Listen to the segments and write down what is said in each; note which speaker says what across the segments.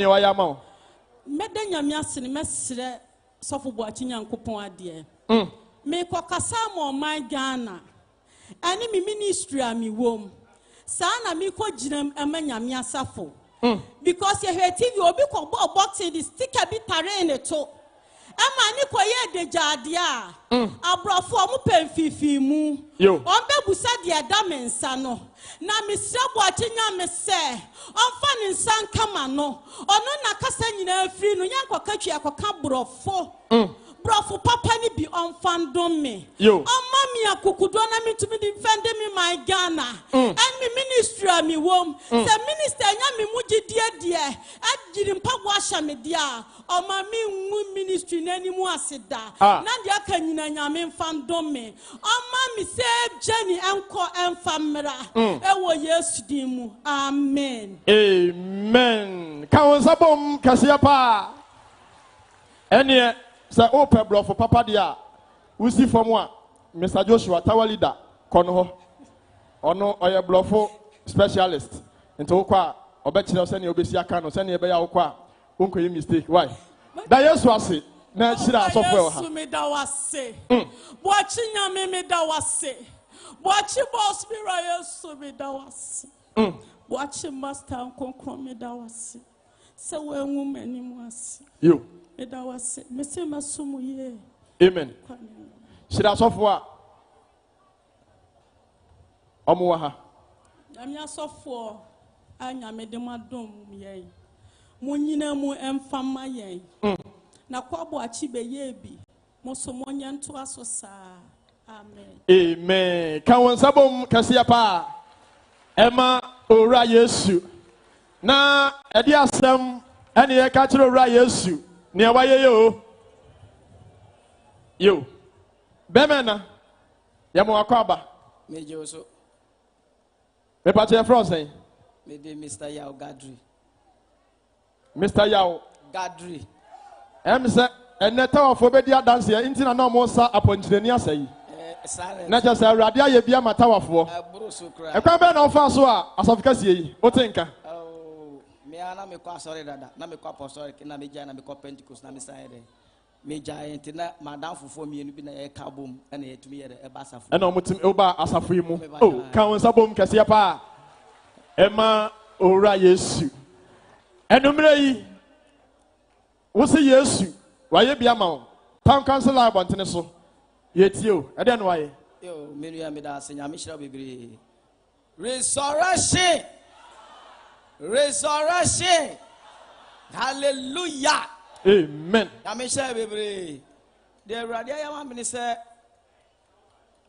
Speaker 1: ne wayɛ ama wo
Speaker 2: mɛda nyame ase no mɛsrɛ sɔfo boakye nyankopɔn adeɛ mekɔkasa ma ɔman ghana ɛne me ministry a mewɔ mu saa na mekɔgyinam ɛma nyame asafo because yɛhwɛ tv obi kɔbɔɔ boxing de stika bi taree ne to ɛma ne kɔyɛ adegyaadeɛ a aborɔfo a mopɛ mfifii
Speaker 1: Yo.
Speaker 2: mu ɔmbɛbusa deɛ ɛda me nsa no na mesrɛ boakye nyame sɛ ɔmfa ne nsa nkama no ɔno na kasa nyinaa firi no yɛnkɔka twi akɔka borɔfo borɔfo papa no bi ɔmfa ndom me
Speaker 1: Yo.
Speaker 2: ɔma me akokodoɔ na metumi de mfɛnde me man ghana ɛne me ministry a mewɔ m sɛ minister nya me mu gyedie deɛ agyiri mpaboa ahyɛ me deɛ a ɔma menwu ministry no anim ase da
Speaker 1: Ah.
Speaker 2: na deɛ aka nyina nyame mfa ndom me ɔma me sɛ gyani ɛnkɔ ɛmfa mmra ɛwɔ yesu din mu amen
Speaker 1: amen ka wo nsa bom kɛseɛ paa ɛneɛ sɛ wopɛ borɔfo papa deɛ a wosi fam a mr joshua tower leader kɔ no hɔ ɔno ɔyɛ borɔfo specialist nti wokɔ a ɔbɛkyerɛ wo sɛneɛ wobɛsi aka no sɛneɛ ɛbɛyɛ a wokɔ a wonkɔyɛ mistake why da yesu ase na hyira asɔfoɔ ɛwɔ ha
Speaker 2: Yesu meda wase. Bwachi nyame meda wase. Bwachi boss mira Yesu meda wase. Bwachi master nkonkron meda wase. Sɛ wɔanwu m'anim ase.
Speaker 1: yo
Speaker 2: Meda wase. Mese masom wo yie.
Speaker 1: amen
Speaker 2: Kwa ne mu.
Speaker 1: hyira asɔfoɔ a ɔmo wɔ ha
Speaker 2: Nyame asɔfoɔ a nyame de mo adom yɛn. Mo nyina mu ɛmfa mma yɛn. Na kwa bwachi bɛyɛ bi. Mo so monyɛ ntoa so saa. Amen.
Speaker 1: amen ka wɔn nsa bom kɛseɛ paa ɛma owura yesu na ɛde asɛm ɛne yɛka kyerɛ owura yesu nea wayɛ yɛ o yo bɛmɛ na yɛma wakɔ aba
Speaker 3: mejɛ o so
Speaker 1: mepakyɛ frɛ sɛn
Speaker 3: mede mr yao gadri
Speaker 1: mr yao
Speaker 3: gadri
Speaker 1: ɛm sɛ ɛnɛ tawafoɔ bɛdi adanseɛ nti na na ɔmo sa apɔnkyerɛni asɛ yi na
Speaker 3: eh, silence
Speaker 1: kyerɛ sɛ awurade ayɛ bi ama tawafoɔ
Speaker 3: aburo so kora
Speaker 1: ɛkwan bɛɛ na ɔfaa so a asɔfo kɛseɛ yi wote nka
Speaker 3: Ao, mea na mekɔ asɔre dada na mekɔ apɔsɔre na megyae na mekɔ pentecost na mesae dɛ megyae nti na madam fofoɔ mmienu bi na yɛka bom ɛna yɛtumi yɛdɛ ɛba asafo
Speaker 1: ɛna ɔmo tim ɛwoba asafo yi mu
Speaker 3: Meba
Speaker 1: o
Speaker 3: kaa.
Speaker 1: ka wɔn nsa bom kɛseɛ paa ɛma owura yesu ɛnumere yi wosi yesu wayɛ bi ama wo town council a abɔntene so yɛtie o ɛdeɛ na wayɛ
Speaker 3: yo menua meda ase nyame hyira wo bebree resurrection resurrection hallelujah
Speaker 1: amen
Speaker 3: nyame hyɛ bebree deɛ awurade ayɛ ma mene sɛ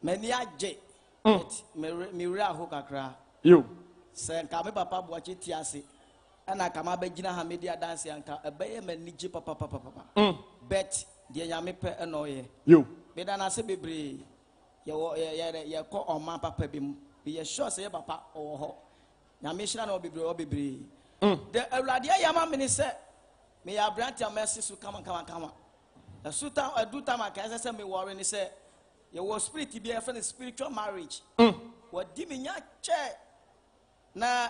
Speaker 3: m'ani agye But mere- mewerɛ aho kakra
Speaker 1: yo
Speaker 3: sɛ nka me papa boakye ti ase ɛna nka mabɛgyina ha medi adanse anka ɛbɛyɛ m'anigye
Speaker 1: Mm.
Speaker 3: papapapapapa bet deɛ nyame pɛ ɛna ɔyɛ
Speaker 1: yo
Speaker 3: meda no ase bebree yɛwɔ yɛ- yɛrɛ- yɛkɔ ɔma papa bi mu yɛ sure sɛ yɛ papa ɔwɔ hɔ nyame hyira na ɔ bebree ɔ bebree de awurade ayɛ ama mene sɛ meyɛ aberante a mɛse so kamakamakama ɛso ta ɛdu tam a kaɛ sɛ sɛ mewɔre ne sɛ yɛwɔ spirit bi a yɛfrɛ no spiritual marriage
Speaker 1: Mm.
Speaker 3: wɔdi me nya kyɛ na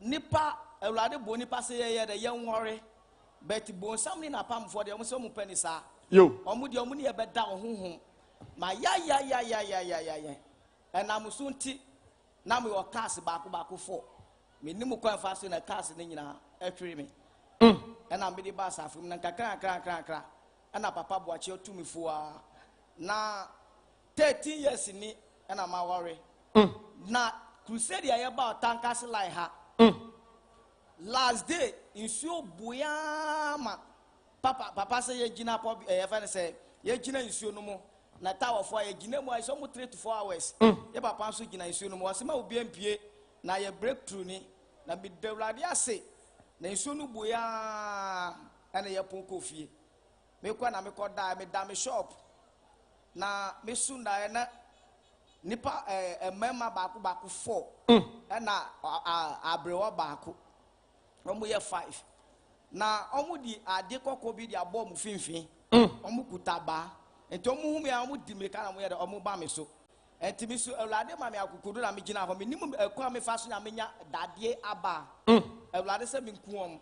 Speaker 3: nipa awurade bo nipa sɛ yɛyɛ dɛ yɛnwɔre but bonsam ne napamfoɔ deɛ ɔmo sɛ ɔmo pɛ ne saa
Speaker 1: yo
Speaker 3: ɔmo deɛ ɔmo ne yɛ bɛda ɔhohom ma yayayayayayayayɛ ɛnam so E, nti na mi wɔ cars baako baako fo mi nim kwan fa so na cars ne nyinaa ɛtwere mi ɛna mi de ba asafo mu na nkakra nkakra nkakra nkakra ɛna E, papa buakye ɔtu mi fua na thirteen years ni ɛna ma wɔre na crusade a yɛba ɔtankasi lai ha last day nsuo buyaa ma papa papa sɛ yɛgyina pɔ ɛyɛ fɛn sɛ yɛgyina nsuo no mu na tawɔfoɔ a yɛgyina mu a sɛ ɔmo three to four hours yɛ papa nso gyina nsuo no mu wɔsɛ ma obi mpie na yɛ break through ni na mi dawurade ase na nsuo no buyaa ɛna yɛ pon kɔ fie mekɔ na mekɔ daa mi da mi shop na mi sun daeɛ na eh, nipa ɛɛ mmarima baako baako four ɛna a- a- aberewa baako wɔn yɛ five na wɔn de ade kɔkɔɔ bi de abɔ wɔn finfin wɔn kuta baa nti wɔn hu mi a wɔn di mirika na wɔn yɛ dɛ wɔn ba mi so nti mi so awurade maame akokodo na mi gyina hɔ mi nimu ɛkɔ a mi fa so na mi nya dadeɛ aba a, awurade sɛ mi nku wɔn